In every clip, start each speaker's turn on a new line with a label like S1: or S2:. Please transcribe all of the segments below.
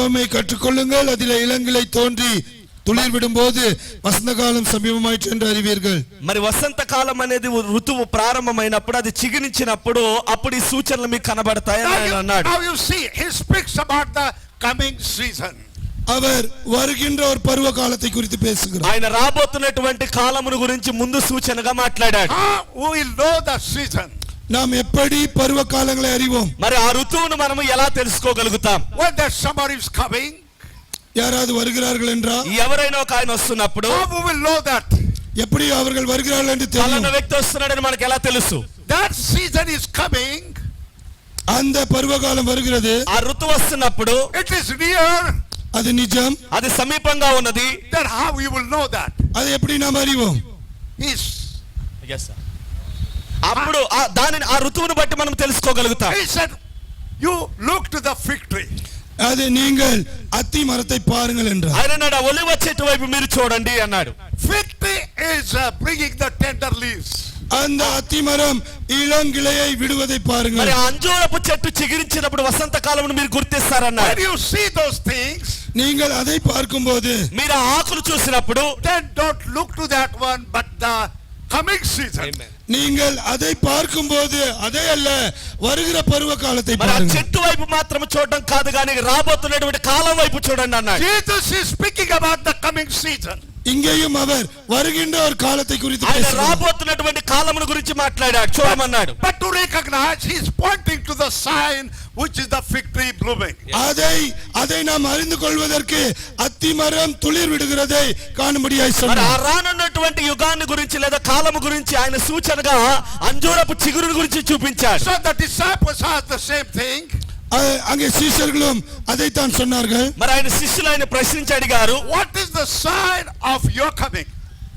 S1: ஓமை கற்றுக்கொள்ளுங்கள் அதிலே இளங்கிளை தோன்றி துளிர் விடும்போது வசந்த காலம் சமீபமாயிற்று என்று அறிவீர்கள்
S2: మరి వసంత కాలం అనేది ఓ ఋతువు ప్రారంభమైనప్పుడు అది చిగురించినప్పుడు అప్పుడు ఈ సూచనలు మీకు కనబడతాయని
S3: Now
S2: ఆయన
S3: you,
S2: అన్నాడు
S3: now you see, he speaks about the coming season.
S1: அவர் வருகின்ற ஒரு பருவ காலத்தை குறித்து பேசுகிறார்
S2: ఆయన రాబోతున్నటువంటి కాలమును గురించి ముందు సూచనగా మాట్లాడాడు
S3: How we will know the season?
S1: நாம் எப்படி పర్వ కాలంలో அறிவோம்
S2: మరి ఆ ఋతువును మనము ఎలా తెలుసుకోగలుగుతాం
S3: When the summer is coming,
S1: யாராவது வருகிறார்கள் என்றா
S2: ఎవరైనా ఒక ఆయన వస్తున్నప్పుడు
S3: how we will know that?
S1: எப்படி அவர்கள் வருகிறார்கள் என்று
S2: పలానా
S1: தெரியும்
S2: వ్యక్తి వస్తున్నాడని మనకు ఎలా తెలుసు
S3: That season is coming,
S1: அந்த பருவ காலம் வருகிறது
S2: ఆ ఋతువు వస్తున్నప్పుడు
S3: it is near,
S1: அது நிஜம்
S2: అది సమీపంగా ఉన్నది
S3: then how we will know that?
S1: அதை எப்படி நாம் அறிவோம்
S3: He's,
S2: అప్పుడు ఆ దానిని ఆ ఋతువును బట్టి మనం తెలుసుకోగలుగుతాం
S3: he said, you look to the fig tree.
S1: அது நீங்கள் అత్తి మరத்தை பாருங்கள் என்றார்
S2: ఆయన అన్నాడు, "ఆ ఒలివ చెట్టు వైపు మీరు చూడండి అన్నాడు
S3: Fig tree is uh, bringing the tender leaves.
S1: அந்த అత్తి மரம் இளங்கிளையை விடுவதை
S2: మరి
S1: பாருங்கள்
S2: ఆ అంజూరపు చెట్టు చిగురించినప్పుడు వసంత కాలమును మీరు
S3: When
S2: గుర్తిస్తారన్నాడు
S3: you see those things,
S1: நீங்கள் அதை பார்க்கும்போது
S2: మీరు ఆ ఆకులు చూసినప్పుడు
S3: then don't look to that one, but the coming season.
S1: நீங்கள் அதை பார்க்கும்போது அதே அல்ல வருகிற பருவ காலத்தை
S2: మరి ఆ
S1: பாருங்கள்
S2: చెట్టు వైపు మాత్రం చూడడం కాదు కానీ రాబోతున్నటువంటి కాలం వైపు చూడండి అన్నాడు
S3: Jesus is speaking about the coming season.
S1: இங்கேயும் அவர் வருகின்ற ஒரு காலத்தை குறித்து
S2: ఆయన
S1: பேசுகிறார்
S2: రాబోతున్నటువంటి కాలమును గురించి మాట్లాడాడు చూడమన్నాడు
S3: But to recognize, he's pointing to the sign which is the fig tree blooming.
S1: அதை அதை நாம் அறிந்து கொள்வதற்கு அத்திமரம் துளிர் விடுகிறதை காணும்படியாய்
S2: మరి ఆ
S1: சொன்னார்
S2: రానున్నటువంటి యుగాన్ని గురించి లేదా కాలము గురించి ఆయన సూచనగా అంజూరపు చిగురుని గురించి చూపించాడు
S3: So the disciples asked the same thing.
S1: அ- அங்கே சீஷர்களும் அதைத்தான் சொன்னார்கள்
S2: మరి ఆయన శిష్యులు ఆయన ప్రశ్నించి అడిగారు
S3: What is the sign of your coming?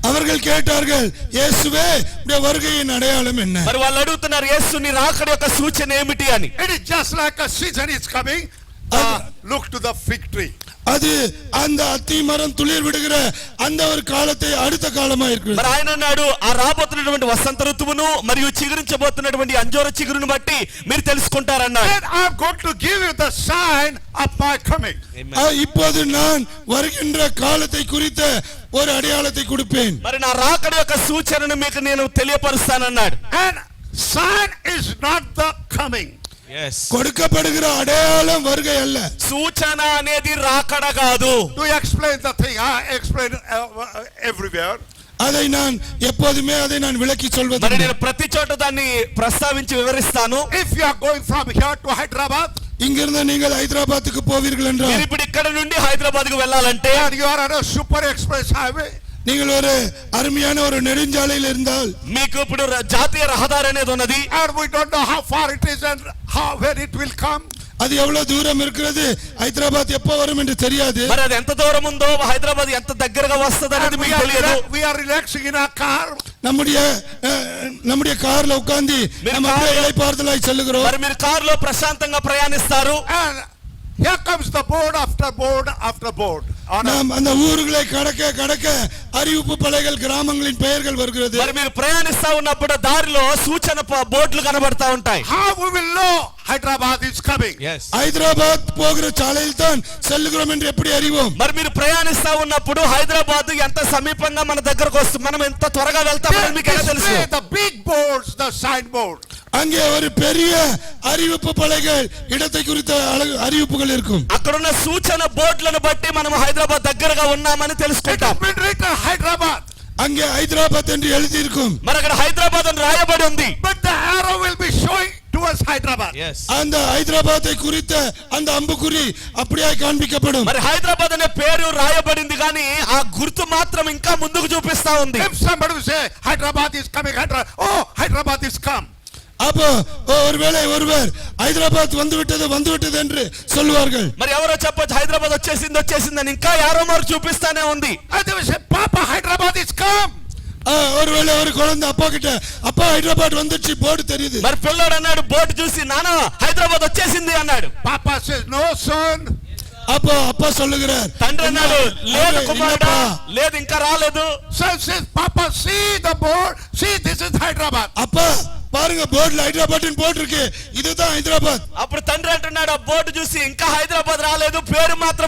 S1: அவர்கள் கேட்டார்கள் இயேசுவே உடைய வருகையின் அடையாளம் என்ன
S2: మరి వాళ్ళు అడుగుతున్నారు యేసు నీ రాకడ యొక్క సూచన ఏమిటి అని
S3: It is just like a season is coming. Ah, look to the fig tree.
S1: அது அந்த அத்திமரம் துளிர் விடுகிற அந்த ஒரு காலத்தை அடுத்த காலமா இருக்கிறது
S2: మరి ఆయన అన్నాడు ఆ రాబోతున్నటువంటి వసంత ఋతువును మరియు చిగురించబోతున్నటువంటి అంజోర చిగురును బట్టి మీరు తెలుసుకుంటారన్నాడు
S3: Then I'm going to give you the sign of my coming.
S1: ஆ, இப்போது நான் வருகின்ற காலத்தை குறித்த ஒரு அடையாளத்தை கொடுப்பேன்
S2: మరి నా రాకడ యొక్క సూచనను మీకు నేను తెలియపరుస్తానన్నాడు
S3: And sign is not the coming.
S1: கொடுக்கப்படுகிற அடையாளம் வருகை அல்ல
S2: సూచన అనేది రాకడ కాదు
S3: To explain the thing, I explain uh, uh, everywhere.
S1: அதை நான் எப்போதுமே அதை நான் விளக்கி
S2: మరి
S1: சொல்வது
S2: నేను ప్రతి చోట దాన్ని ప్రస్తావించి వివరిస్తాను
S3: If you are going from here to Hyderabad,
S1: இங்கிருந்து நீங்கள் ஹைதராபாத்துக்கு போவீர்கள்
S2: మీరు
S1: என்றால்
S2: ఇప్పుడు ఇక్కడ నుండి హైదరాబాద్ కు వెళ్ళాలంటే
S3: and you are on a super express highway,
S1: நீங்கள் ஒரு அருமையான ஒரு நெடுஞ்சாலையில் இருந்தால்
S2: మీకు ఇప్పుడు ర- జాతీయ రహదారి అనేది ఉన్నది
S3: and we don't know how far it is and how when it will come.
S1: அது எவ்வளவு தூரம் இருக்கிறது ஹைதராபாத் எப்போ வரும் என்று தெரியாது
S2: మరి అది ఎంత దూరం ఉందో హైదరాబాద్ ఎంత దగ్గరగా వస్తుంది
S3: And
S2: అనేది
S3: we
S2: మీకు
S3: are,
S2: తెలియదు
S3: rela- we are relaxing in our car.
S1: நம்முடைய அஹ், நம்முடைய கார்ல உட்கார்ந்து நம்ம அப்படியே இலைப்பாறுதலாய் செல்லுகிறோம்
S2: మరి మీరు కారులో ప్రశాంతంగా ప్రయాణిస్తారు
S3: And here comes the board after board after board. On a,
S1: நாம் அந்த ஊர்களை கடக்க கடக்க அறிவிப்பு பலைகள் கிராமங்களின் பெயர்கள் வருகிறது
S2: మరి మీరు ప్రయాణిస్తా ఉన్నప్పుడు దారిలో సూచన ప- బోర్డులు కనబడతా ఉంటాయి
S3: how we will know Hyderabad is coming?
S1: Hyderabad போகிற சாலையில் தான் செல்லுகிறோம் என்று எப்படி அறிவோம்
S2: మరి మీరు ప్రయాణిస్తా ఉన్నప్పుడు హైదరాబాద్ ఎంత సమీపంగా మన దగ్గరకు వస్తుంది మనం ఎంత త్వరగా వెళ్తామని
S3: They
S2: మీకు ఎలా తెలుసు
S3: display the big boards, the signboard.
S1: அங்கே ஒரு பெரிய அறிவிப்பு பலைகள் இடத்தை குறித்த அழகு- அறிவிப்புகள் இருக்கும்
S2: అక్కడున్న సూచన బోర్డులను బట్టి మనం హైదరాబాద్ దగ్గరగా ఉన్నామని
S3: It
S2: తెలుసుకుంటాం
S3: has been written Hyderabad,
S1: அங்கே ஹைதராபாத் என்று எழுதியிருக்கும்
S2: మరి అక్కడ హైదరాబాద్ అని రాయబడి ఉంది
S3: but the arrow will be showing towards Hyderabad.
S1: அந்த ஹைதராபாத்தை குறித்த அந்த அம்புக்குறி அப்படியே காண்பிக்கப்படும்
S2: మరి హైదరాబాద్ అనే పేరు రాయబడింది కానీ ఆ గుర్తు మాత్రం ఇంకా ముందుకు చూపిస్తా ఉంది
S3: If somebody will say Hyderabad is coming, Hyderabad, oh, Hyderabad is come.
S1: அப்போ ஒ- ஒருவேளை ஒருவர் ஹைதராபாத் வந்துவிட்டது வந்துவிட்டது என்று சொல்லுவார்கள்
S2: మరి ఎవరో చెప్పొచ్చు హైదరాబాద్ వచ్చేసింది వచ్చేసింది అని ఇంకా యారో మారు చూపిస్తానే ఉంది
S3: And they will say, Papa, Hyderabad is come.
S1: ஆ, ஒருவேளை ஒரு குழந்தை அப்பா கிட்ட அப்பா ஹைதராபாத் வந்துச்சு போர்டு தெரியுது
S2: మరి పిల్లోడు అన్నాడు బోర్డు చూసి నానా హైదరాబాద్ వచ్చేసింది అన్నాడు
S3: Papa says, no, son.
S1: அப்போ அப்பா சொல்லுகிறார்
S2: తండ్రి అన్నాడు లేదు కుమారుడా లేదు ఇంకా రాలేదు
S3: Son says, Papa, see the board. See, this is Hyderabad.
S1: அப்பா பாருங்க போர்டுல ஹைதராபாத்னு போட்டிருக்கு இதுதான் ஹைதராபாத்
S2: అప్పుడు తండ్రి అంటున్నాడు ఆ బోర్డు చూసి ఇంకా హైదరాబాద్ రాలేదు పేరు మాత్రం